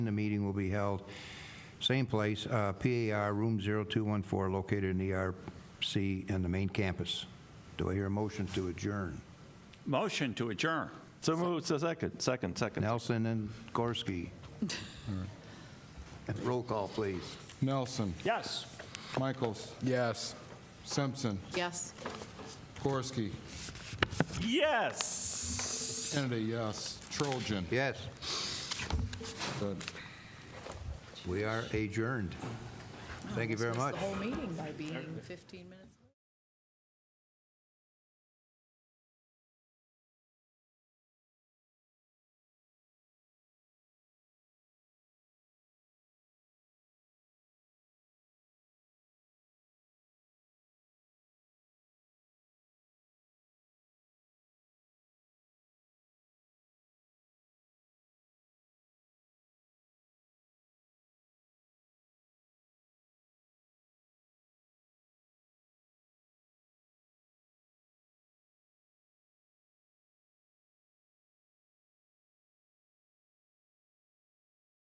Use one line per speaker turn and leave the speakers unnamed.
The meeting will be held, same place, uh, PAR Room 0214, located in the E RC in the main campus. Do I hear a motion to adjourn?
Motion to adjourn.
So moved, so second, second, second.
Nelson and Gorski. Roll call, please.
Nelson.
Yes.
Michaels. Yes. Simpson.
Yes.
Gorski.
Yes!
Kennedy, yes. Trojan.
Yes,
Good.
we are adjourned. Thank you very
Almost
much.
missed The whole meeting by being 15 minutes.